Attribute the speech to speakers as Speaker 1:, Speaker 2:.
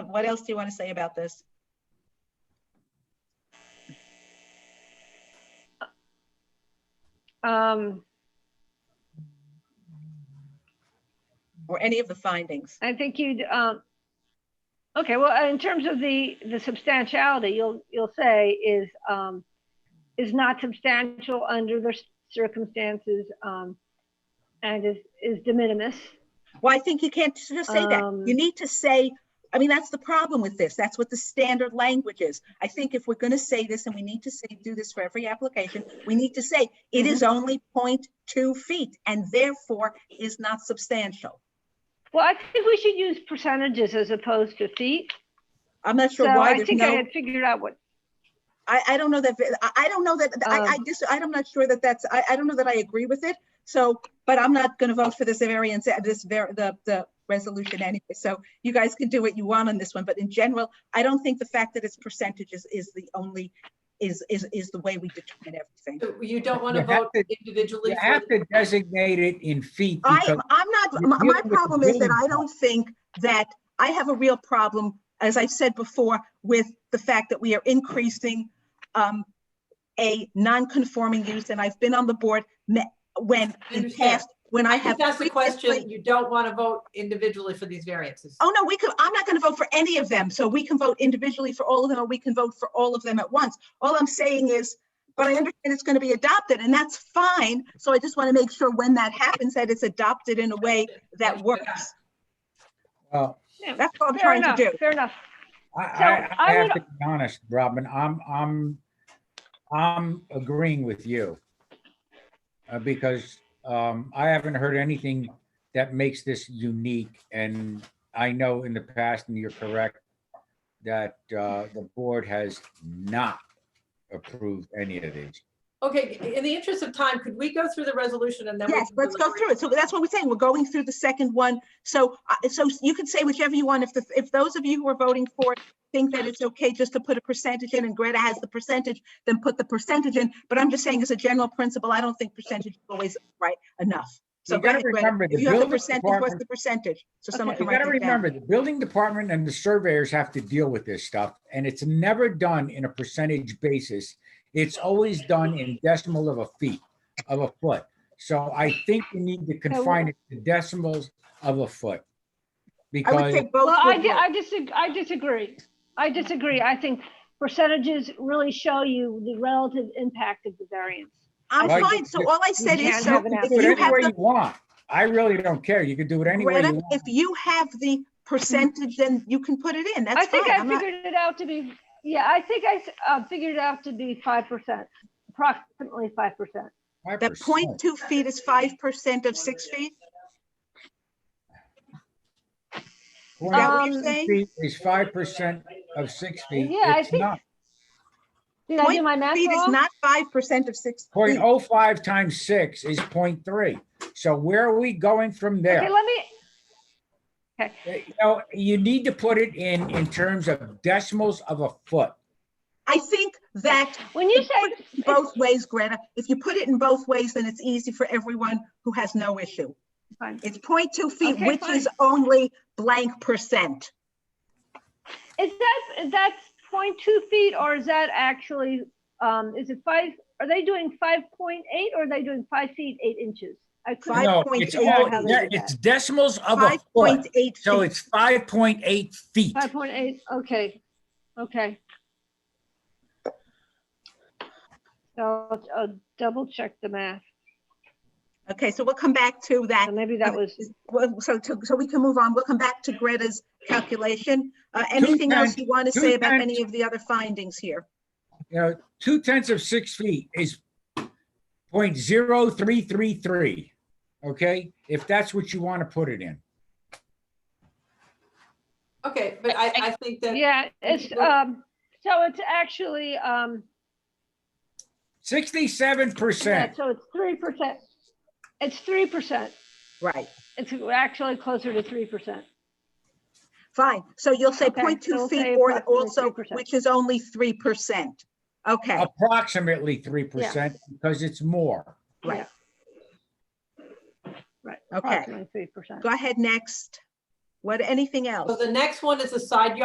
Speaker 1: What else do you want to say about this?
Speaker 2: Um,
Speaker 1: Or any of the findings?
Speaker 2: I think you'd, um, okay, well, uh, in terms of the, the substantiality, you'll, you'll say is, um, is not substantial under the circumstances, um, and is, is de minimis.
Speaker 1: Well, I think you can't just say that.
Speaker 2: Um,
Speaker 1: You need to say, I mean, that's the problem with this. That's what the standard language is. I think if we're going to say this and we need to say, do this for every application, we need to say it is
Speaker 2: Mm-hmm.
Speaker 1: only 0.2 feet and therefore is not substantial.
Speaker 2: Well, I think we should use percentages as opposed to feet.
Speaker 1: I'm not
Speaker 2: So
Speaker 1: sure why
Speaker 2: I
Speaker 1: there's
Speaker 2: think I
Speaker 1: no,
Speaker 2: had figured out what,
Speaker 1: I, I don't know that, I, I don't know that, I, I
Speaker 2: Um,
Speaker 1: just, I'm not sure that that's, I, I don't know that I agree with it. So, but I'm not going to vote for this variance, uh, this, var- the, the resolution anyway. So you guys can do what you want on this one, but in general, I don't think the fact that it's percentages is the only, is, is, is the way we determine everything.
Speaker 3: So You don't want to
Speaker 4: You have
Speaker 3: vote
Speaker 4: to-
Speaker 3: individually
Speaker 4: You
Speaker 3: for
Speaker 4: have to designate it in feet
Speaker 1: I,
Speaker 4: because
Speaker 1: I'm not,
Speaker 4: you're
Speaker 1: my, my
Speaker 4: dealing with the
Speaker 1: problem is that
Speaker 4: building
Speaker 1: I don't think that, I have a real problem, as I've said before, with the fact that we are increasing um, a non-conforming use, and I've been on the board me- when,
Speaker 3: I
Speaker 1: in
Speaker 3: understand.
Speaker 1: past, when I have.
Speaker 3: If that's the question,
Speaker 1: previously-
Speaker 3: you don't want to vote individually for these variances.
Speaker 1: Oh, no, we could, I'm not gonna vote for any of them, so we can vote individually for all of them, or we can vote for all of them at once. All I'm saying is, but I understand it's gonna be adopted, and that's fine, so I just wanna make sure when that happens, that it's adopted in a way that works.
Speaker 4: uh,
Speaker 1: That's what I'm
Speaker 2: fair
Speaker 1: trying to
Speaker 2: enough,
Speaker 1: do.
Speaker 2: fair enough.
Speaker 4: I,
Speaker 2: So,
Speaker 4: I, I
Speaker 2: I
Speaker 4: have
Speaker 2: would-
Speaker 4: to be honest, Robin, I'm, I'm, I'm agreeing with you. Uh, because, um, I haven't heard anything that makes this unique and I know in the past, and you're correct, that, uh, the board has not approved any of these.
Speaker 3: Okay, in the interest of time, could we go through the resolution and then? we
Speaker 1: Yes,
Speaker 3: can
Speaker 1: let's go
Speaker 3: deliberate?
Speaker 1: through it. So that's what we're saying. We're going through the second one. So, uh, so you can say whichever you want. If the, if those of you who are voting for it think that it's okay just to put a percentage in and Greta has the percentage, then put the percentage in. But I'm just saying as a general principle, I don't think percentage is always right enough. So
Speaker 4: You gotta
Speaker 1: Greta,
Speaker 4: remember
Speaker 1: Greta, if
Speaker 4: the
Speaker 1: you have the
Speaker 4: building
Speaker 1: percentage, what's
Speaker 4: department-
Speaker 1: the percentage? So someone
Speaker 2: Okay.
Speaker 1: can
Speaker 4: You
Speaker 1: write
Speaker 4: gotta
Speaker 1: it down.
Speaker 4: remember, the building department and the surveyors have to deal with this stuff, and it's never done in a percentage basis. It's always done in decimal of a feet, of a foot. So I think we need to confine it to decimals of a foot.
Speaker 1: I would
Speaker 4: Because,
Speaker 1: say both.
Speaker 2: Well, I,
Speaker 1: would
Speaker 2: di-
Speaker 1: work.
Speaker 2: I disagree, I disagree. I disagree. I think percentages really show you the relative impact of the variance.
Speaker 1: I'm
Speaker 4: Well, I
Speaker 1: fine.
Speaker 4: think
Speaker 1: So
Speaker 4: that-
Speaker 1: all I said is,
Speaker 2: can't
Speaker 1: so
Speaker 2: have an
Speaker 1: if
Speaker 4: do it
Speaker 1: you
Speaker 4: any
Speaker 1: have
Speaker 4: way
Speaker 1: the
Speaker 4: you want. I really don't care. You can do it any way you
Speaker 1: Greta,
Speaker 4: want.
Speaker 1: if you have the percentage, then you can put it in.
Speaker 2: I
Speaker 1: That's fine.
Speaker 2: think I
Speaker 1: I'm not-
Speaker 2: figured it out to be, yeah, I think I, s- uh, figured it out to be five percent, approximately five percent.
Speaker 1: That
Speaker 4: 5%.
Speaker 1: point two feet is five percent of six feet?
Speaker 4: Point
Speaker 1: that what you're
Speaker 2: Um,
Speaker 1: saying?
Speaker 4: feet Is five percent of six feet.
Speaker 2: Yeah, I
Speaker 4: It's
Speaker 2: think-
Speaker 4: not.
Speaker 2: Did I do my math
Speaker 1: Feet is
Speaker 2: wrong?
Speaker 1: not five percent of six
Speaker 4: Point
Speaker 1: feet.
Speaker 4: oh five times six is point three. So where are we going from there?
Speaker 2: Okay, let me,
Speaker 4: You know, you need to put it in, in terms of decimals of a foot.
Speaker 1: I think that
Speaker 2: when you
Speaker 1: It's
Speaker 2: say,
Speaker 1: both ways, Greta, if you put it in both ways, then it's easy for everyone who has no issue.
Speaker 2: Fine.
Speaker 1: It's point two feet,
Speaker 2: Okay,
Speaker 1: which
Speaker 2: fine.
Speaker 1: is only blank percent.
Speaker 2: is that, that's point two feet or is that actually, um, is it five, are they doing five point eight or are they doing five feet, eight inches? I couldn't,
Speaker 4: No,
Speaker 1: 5.8.
Speaker 4: it's all,
Speaker 2: How they
Speaker 4: yeah,
Speaker 2: did
Speaker 4: it's decimals of a
Speaker 1: Five
Speaker 4: foot.
Speaker 1: point eight
Speaker 4: So
Speaker 1: feet.
Speaker 4: it's five point eight feet.
Speaker 2: five point eight, okay, okay. So I'll, I'll double check the math,
Speaker 1: Okay, so we'll come back to that.
Speaker 2: so maybe that was,
Speaker 1: Well, So, to- so we can move on. We'll come back to Greta's calculation. Uh, Anything else
Speaker 4: times-
Speaker 1: you want to
Speaker 4: two
Speaker 1: say about
Speaker 4: times-
Speaker 1: any of the other findings here?
Speaker 4: You know, two tenths of six feet is point zero three three three. Okay, if that's what you want to put it in.
Speaker 3: Okay, but I, I think that.
Speaker 2: yeah, it's, um, so it's actually, um,
Speaker 4: Sixty-seven
Speaker 2: yeah,
Speaker 4: percent.
Speaker 2: so it's three percent. It's three percent,
Speaker 1: Right.
Speaker 2: it's actually closer to three percent.
Speaker 1: Fine, so you'll say
Speaker 2: Okay,
Speaker 1: point
Speaker 2: so
Speaker 1: two
Speaker 2: we'll
Speaker 1: feet
Speaker 2: say
Speaker 1: or
Speaker 2: approximately
Speaker 1: also,
Speaker 2: 3%.
Speaker 1: which is only three percent. Okay,
Speaker 4: approximately three percent because it's more.
Speaker 1: Right.
Speaker 2: Right,
Speaker 1: Okay.
Speaker 2: approximately three percent.
Speaker 1: go ahead next. What, anything else?
Speaker 3: So the next one is the side yard